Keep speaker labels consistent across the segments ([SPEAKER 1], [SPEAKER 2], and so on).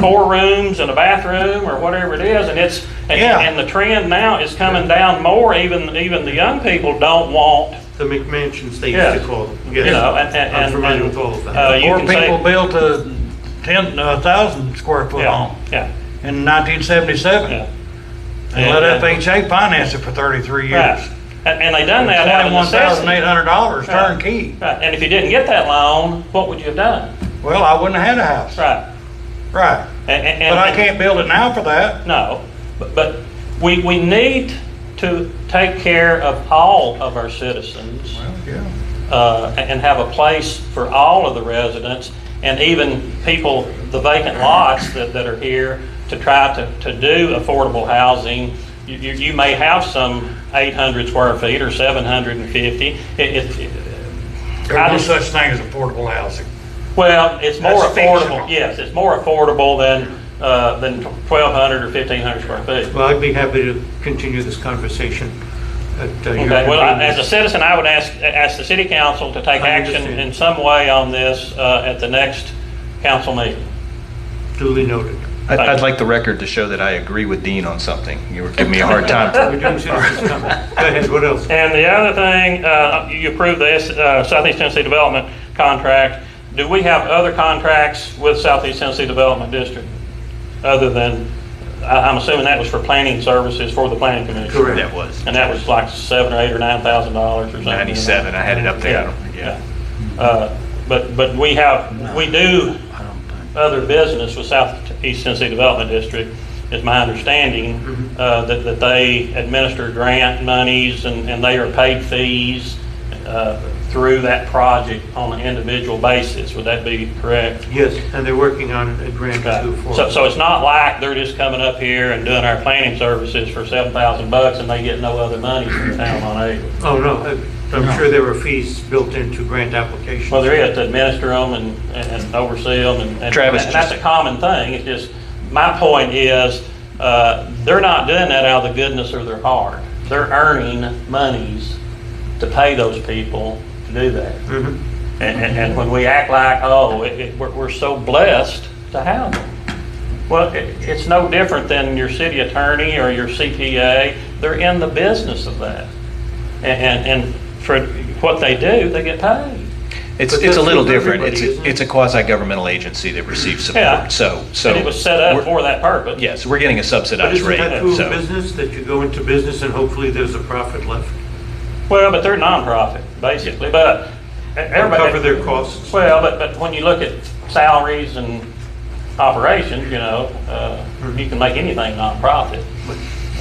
[SPEAKER 1] four rooms and a bathroom or whatever it is, and it's, and,
[SPEAKER 2] Yeah.
[SPEAKER 1] and the trend now is coming down more, even, even the young people don't want,
[SPEAKER 3] The McMansions, they
[SPEAKER 1] Yeah.
[SPEAKER 3] used to call them.
[SPEAKER 1] you
[SPEAKER 3] Yes.
[SPEAKER 1] know, and, and.
[SPEAKER 3] I'm familiar
[SPEAKER 1] and-
[SPEAKER 3] with all of
[SPEAKER 1] uh,
[SPEAKER 3] that.
[SPEAKER 1] you
[SPEAKER 2] More
[SPEAKER 1] can say-
[SPEAKER 2] people built a ten, a thousand square foot
[SPEAKER 1] Yeah,
[SPEAKER 2] home
[SPEAKER 1] yeah,
[SPEAKER 2] in nineteen seventy-seven.
[SPEAKER 1] yeah.
[SPEAKER 2] And let
[SPEAKER 1] And-
[SPEAKER 2] FHA finance it for thirty-three
[SPEAKER 1] Right.
[SPEAKER 2] years.
[SPEAKER 1] And, and they done that out of
[SPEAKER 2] Twenty-one thousand eight
[SPEAKER 1] necessity.
[SPEAKER 2] hundred dollars
[SPEAKER 1] Right.
[SPEAKER 2] turnkey.
[SPEAKER 1] Right, and if you didn't get that loan, what would you have done?
[SPEAKER 2] Well, I wouldn't have had a house.
[SPEAKER 1] Right.
[SPEAKER 2] Right.
[SPEAKER 1] And- and-
[SPEAKER 2] But I
[SPEAKER 1] and-
[SPEAKER 2] can't build it now for that.
[SPEAKER 1] No, but, but we, we need to take care of all of our citizens
[SPEAKER 2] Well, yeah.
[SPEAKER 1] uh, and and have a place for all of the residents and even people, the vacant lots that, that are here to try to, to do affordable housing. You, you you may have some 800 square feet or 750. It- it-
[SPEAKER 2] There's
[SPEAKER 1] I
[SPEAKER 2] no
[SPEAKER 1] just-
[SPEAKER 2] such thing as affordable housing.
[SPEAKER 1] Well, it's more
[SPEAKER 2] That's
[SPEAKER 1] affordable,
[SPEAKER 2] fictional.
[SPEAKER 1] yes, it's more affordable than, uh, than 1,200 or 1,500 square feet.
[SPEAKER 3] Well, I'd be happy to continue this conversation at uh, your
[SPEAKER 1] Okay, well, I- as a
[SPEAKER 3] convenience.
[SPEAKER 1] citizen, I would ask, ask the city council to take
[SPEAKER 3] I
[SPEAKER 1] action
[SPEAKER 3] understand.
[SPEAKER 1] in some way on this uh, at the next council meeting.
[SPEAKER 3] Duly noted.
[SPEAKER 4] I'd, I'd like the record to show that I agree with Dean on something. You were giving me a hard time.
[SPEAKER 3] We're doing citizens' comment. Go ahead, what else?
[SPEAKER 1] And the other thing, uh, you approved the S- uh, Southeast Tennessee Development contract. Do we have other contracts with Southeast Tennessee Development District? Other than, I- I'm assuming that was for planning services for the planning commission?
[SPEAKER 3] Correct.
[SPEAKER 4] That was
[SPEAKER 1] And that was like seven or eight or nine thousand dollars or something.
[SPEAKER 4] ninety-seven. I had it up there. I
[SPEAKER 1] Yeah,
[SPEAKER 4] don't-
[SPEAKER 1] yeah.
[SPEAKER 4] Yeah.
[SPEAKER 1] Uh, But, but we have, we do other business with Southeast Tennessee Development District, is my understanding, uh, that, that they administer grant monies and, and they are paid fees uh, through that project on an individual basis. Would that be correct? Uh,
[SPEAKER 3] Yes, and they're working on a grant too for.
[SPEAKER 1] So, so it's not like they're just coming up here and doing our planning services for seven thousand bucks and they get no other money from the town on aid.
[SPEAKER 3] Oh, no, I- I'm sure there were fees built into grant applications.
[SPEAKER 1] Well, there is, to administer them and, and oversee them, and- and.
[SPEAKER 4] Travis,
[SPEAKER 1] And that's a
[SPEAKER 4] just-
[SPEAKER 1] common thing, it's just, my point is, uh, they're not doing that out of the goodness of their heart. They're earning monies to pay those people to do that.
[SPEAKER 3] Mhm.
[SPEAKER 1] And, and, and when we act like, oh, it, it, we're, we're so blessed to have them. Well, it, it's no different than your city attorney or your CPA, they're in the business of that. And, and, and for what they do, they get paid.
[SPEAKER 4] It's,
[SPEAKER 3] But
[SPEAKER 4] it's a
[SPEAKER 3] that's
[SPEAKER 4] little
[SPEAKER 3] with
[SPEAKER 4] different.
[SPEAKER 3] everybody,
[SPEAKER 4] It's, a-
[SPEAKER 3] isn't it?
[SPEAKER 4] it's a quasi-governmental agency that receives
[SPEAKER 1] Yeah.
[SPEAKER 4] support. So, so.
[SPEAKER 1] And it was set up
[SPEAKER 4] we're-
[SPEAKER 1] for that purpose.
[SPEAKER 4] Yes, we're getting a
[SPEAKER 3] But
[SPEAKER 4] subsidized
[SPEAKER 3] isn't
[SPEAKER 4] rate.
[SPEAKER 3] that true
[SPEAKER 4] so-
[SPEAKER 3] of business, that you go into business and hopefully there's a profit left?
[SPEAKER 1] Well, but they're nonprofit, basically, but everybody.
[SPEAKER 3] Cover their costs?
[SPEAKER 1] Well, but, but when you look at salaries and operations, you know, uh, you can make anything nonprofit.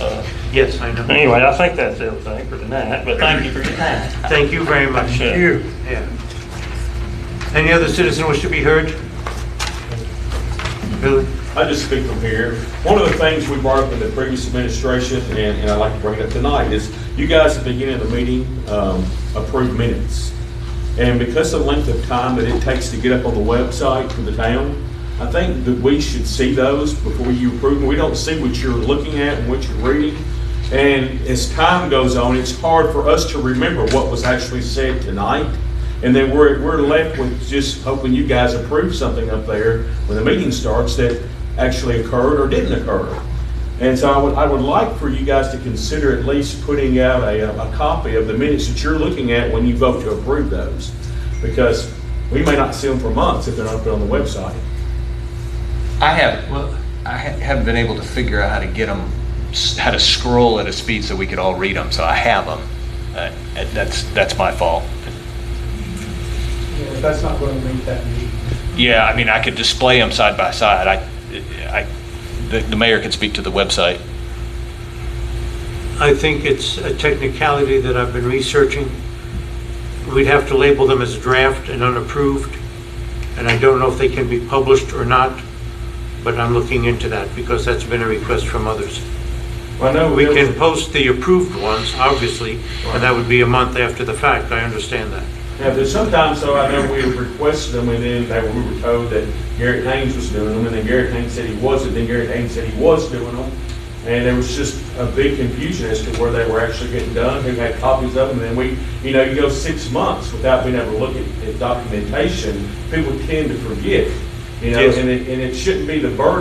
[SPEAKER 1] Uh,
[SPEAKER 3] Yes, I know.
[SPEAKER 1] Anyway, I think that's everything for tonight, but thank you for your time.
[SPEAKER 3] Thank you very much.
[SPEAKER 1] Sure.
[SPEAKER 3] Yeah. Any other citizen wish to be heard? Billy?
[SPEAKER 5] I just speak from here. One of the things we brought up in the previous administration, and, and I'd like to bring it up tonight, is you guys at the beginning of the meeting, um, approved minutes. And because of the length of time that it takes to get up on the website for the town, I think that we should see those before you approve them. We don't see what you're looking at and what you're reading. And as time goes on, it's hard for us to remember what was actually said tonight. And then we're, we're left with just hoping you guys approve something up there when the meeting starts that actually occurred or didn't occur. And so I would, I would like for you guys to consider at least putting out a, a copy of the minutes that you're looking at when you vote to approve those. Because we may not see them for months if they're not put on the website.
[SPEAKER 4] I have, well, I ha- haven't been able to figure out how to get them, how to scroll at a speed so we could all read them, so I have them. Uh, That's, that's my fault.
[SPEAKER 6] Yeah, but that's not going to make that meeting.
[SPEAKER 4] Yeah, I mean, I could display them side by side. I, I, the- the mayor could speak to the website.
[SPEAKER 3] I think it's a technicality that I've been researching. We'd have to label them as draft and unapproved, and I don't know if they can be published or not, but I'm looking into that because that's been a request from others.
[SPEAKER 5] I know
[SPEAKER 3] We can post the approved ones, obviously, and that would be a month after the fact, I understand that.
[SPEAKER 5] Yeah, but sometimes, though, I know we requested them, and then they, we were told that Garrett Haynes was doing them, and then Garrett Haynes said he wasn't, then Garrett Haynes said he was doing them. And there was just a big confusion as to where they were actually getting done, who had copies of them, and then we, you know, you go six months without being able to look at, at documentation, people tend to forget, you know,
[SPEAKER 3] Yes.
[SPEAKER 5] and it, and it shouldn't be the burden